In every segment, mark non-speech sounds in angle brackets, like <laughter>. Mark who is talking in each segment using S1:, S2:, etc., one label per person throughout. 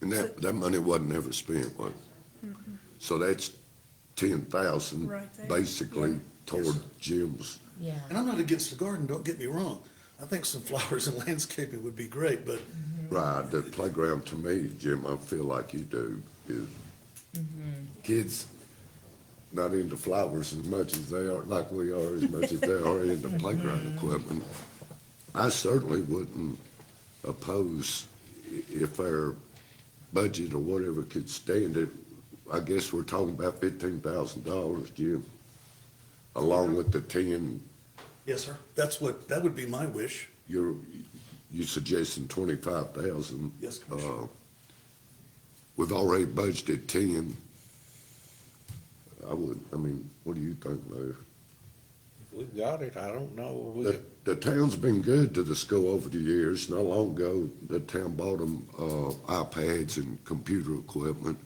S1: And that, that money wasn't ever spent, was it? So that's ten thousand,
S2: Right there.
S1: basically toward Jim's.
S3: Yeah,
S4: And I'm not against the garden, don't get me wrong. I think some <laughs> flowers and landscaping would be great, but
S1: Right, the playground to me, Jim, I feel like you do, is kids not into flowers as much as they are, like we are, as much as they are into playground equipment. I certainly wouldn't oppose i- if our budget or whatever could stand it. I guess we're talking about fifteen thousand dollars, Jim, along with the ten,
S4: yes, sir, that's what, that would be my wish.
S1: you're, you suggesting twenty-five thousand? uh,
S4: Yes, Commissioner.
S1: We've already budgeted ten. I would, I mean, what do you think, Mayor?
S5: We've got it, I don't know, we,
S1: The, the town's been good to the school over the years. Not long ago, the town bought them, uh, iPads and computer equipment.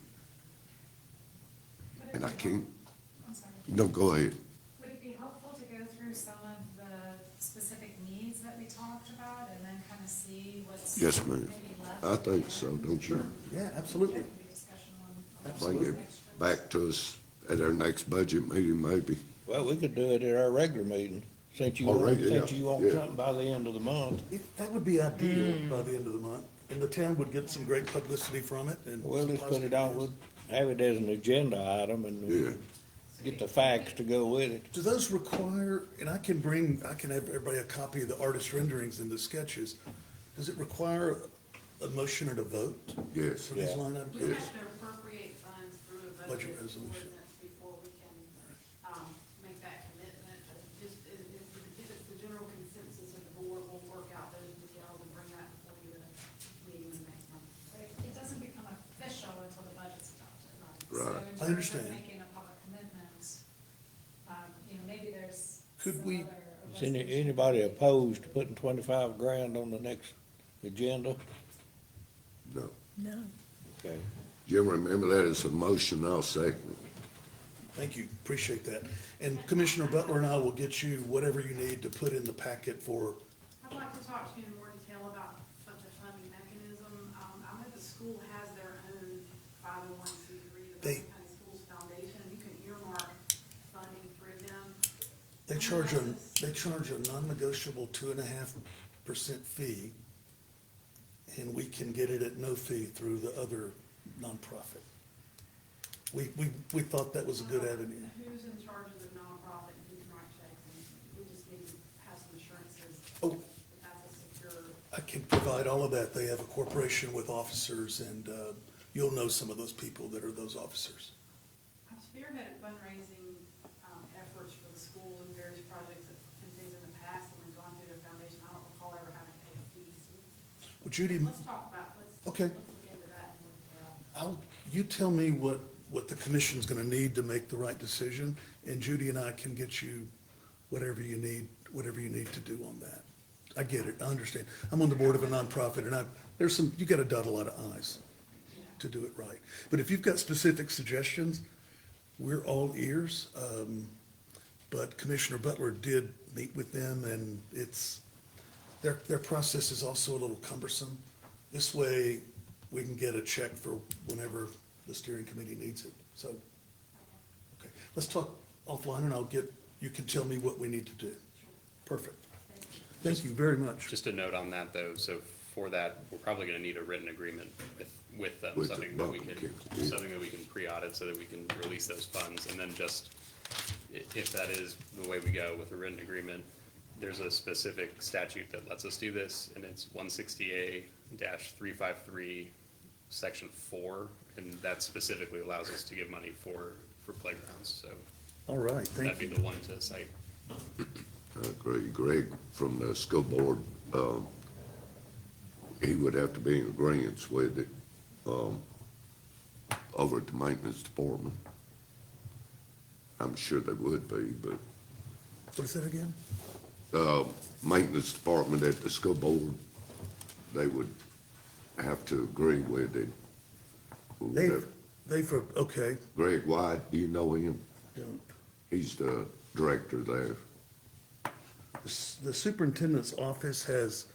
S1: And I can't,
S6: I'm sorry.
S1: no, go ahead.
S6: Would it be helpful to go through some of the specific needs that we talked about and then kind of see what's?
S1: Yes, ma'am.
S6: maybe left?
S1: I think so, don't you?
S4: Yeah, absolutely.
S6: Maybe a discussion on- on
S1: Bring it back to us at our next budget meeting, maybe.
S5: well, we could do it at our regular meeting, since you
S1: Our
S5: want,
S1: regular,
S5: since
S1: yeah,
S5: you want
S1: yeah.
S5: something by the end of the month.
S4: It- That would be ideal by the end of the month, and the town would get some great publicity from it and.
S5: We'll
S4: some
S5: just put
S4: positive
S5: it on,
S4: news.
S5: we'll have it as an agenda item
S1: Yeah.
S5: and get the facts to go with it.
S4: Do those require, and I can bring, I can have everybody a copy of the artist renderings and the sketches. Does it require a motion and a vote?
S1: Yes.
S4: For these
S5: Yeah.
S4: line items?
S7: We have to appropriate funds through a budget
S4: Budget resolution.
S7: ordinance before we can, um, make that commitment. Just, if, if if it's the general consensus of the board, we'll work out those details and bring that before you at a meeting in the next month.
S6: But it- It doesn't become official until the budget's adopted. So
S1: Right.
S6: in
S4: I
S6: terms of
S4: understand.
S6: Making a public commitment, um, you know, maybe there's.
S4: Could
S6: some
S4: we-
S6: other
S5: Is any,
S6: resolution.
S5: anybody opposed to putting twenty-five grand on the next agenda?
S1: No.
S2: No.
S5: Okay.
S1: Jim, remember that as a motion, I'll second it.
S4: Thank you, appreciate that. And Commissioner Butler and I will get you whatever you need to put in the packet for,
S7: I'd like to talk to you in more detail about what the funding mechanism. Um, I know the school has their own five oh one C three, the
S4: They-
S7: Brazos County Schools Foundation. You can earmark funding through them.
S4: they charge a, they charge a non-negotiable two and a half percent fee. And we can get it at no fee through the other nonprofit. We, we, we thought that was a good avenue.
S7: Who's in charge of the nonprofit, and who can write checks, and we just need to have some assurances
S4: Oh.
S7: that that's a secure.
S4: I can provide all of that. They have a corporation with officers and, uh, you'll know some of those people that are those officers.
S7: I've spearheaded fundraising, um, efforts for the schools and various projects and things in the past, and we've gone through the foundation, I don't recall ever having paid fees.
S4: Well, Judy,
S7: Let's talk about, let's,
S4: Okay.
S7: let's look into that and look it up.
S4: I'll, you tell me what, what the commission's gonna need to make the right decision, and Judy and I can get you whatever you need, whatever you need to do on that. I get it, I understand. I'm on the board of a nonprofit, and I, there's some, you gotta dot a lot of i's to do it right. But if you've got specific suggestions, we're all ears. Um, but Commissioner Butler did meet with them, and it's, their, their process is also a little cumbersome. This way, we can get a check for whenever the steering committee needs it, so. Okay, let's talk offline and I'll get, you can tell me what we need to do. Perfect. Thank you very much.
S8: Just a note on that, though, so for that, we're probably gonna need a written agreement with, with them,
S1: With the
S8: something that we
S1: Buckham
S8: can,
S1: County.
S8: something that we can pre-audit so that we can release those funds, and then just, i- if that is the way we go with a written agreement, there's a specific statute that lets us do this, and it's one sixty-eight three five three, section four, and that specifically allows us to give money for, for playgrounds, so
S4: All right, thank
S8: that'd be
S4: you.
S8: the one to cite.
S1: I agree. Uh, Greg from the school board, um, he would have to be in agreeance with it, um, over at the maintenance department. I'm sure they would be, but,
S4: What is that again?
S1: uh, maintenance department at the school board, they would have to agree with it.
S4: They, they for, okay,
S1: Greg White, do you know him?
S4: don't.
S1: He's the director there.
S4: The s- the superintendent's office has